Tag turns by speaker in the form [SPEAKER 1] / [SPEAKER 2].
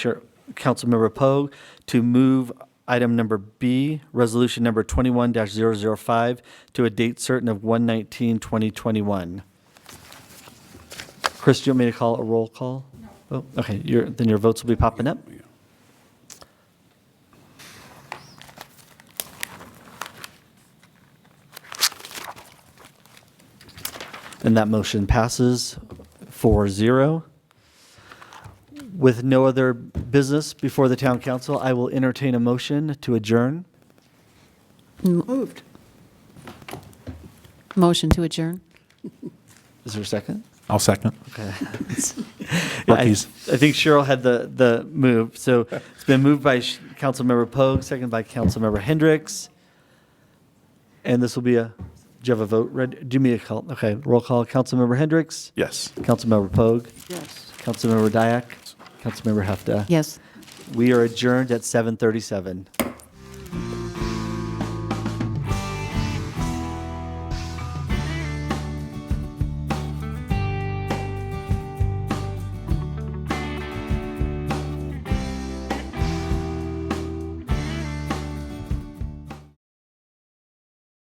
[SPEAKER 1] Chair, Councilmember Poe to move item number B, resolution number 21-005, to a date certain of 1/19/2021. Chris, do you want me to call a roll call? No. Okay, your, then your votes will be popping up. And that motion passes 4-0. With no other business before the town council, I will entertain a motion to adjourn.
[SPEAKER 2] Moved.
[SPEAKER 3] Motion to adjourn?
[SPEAKER 1] Is there a second?
[SPEAKER 4] I'll second.
[SPEAKER 1] Okay. I I
[SPEAKER 4] Rookies.
[SPEAKER 1] think Cheryl had the, the move. So it's been moved by Sh- Councilmember Pogue, seconded by Councilmember Hendricks. And this will be a, do you have a vote? Red, do me a call. Okay, roll call. Councilmember Hendricks,
[SPEAKER 4] Yes.
[SPEAKER 1] Councilmember Pogue,
[SPEAKER 2] Yes.
[SPEAKER 1] Councilmember Dyak, Councilmember Hefta.
[SPEAKER 3] Yes.
[SPEAKER 1] We are adjourned at 7:37.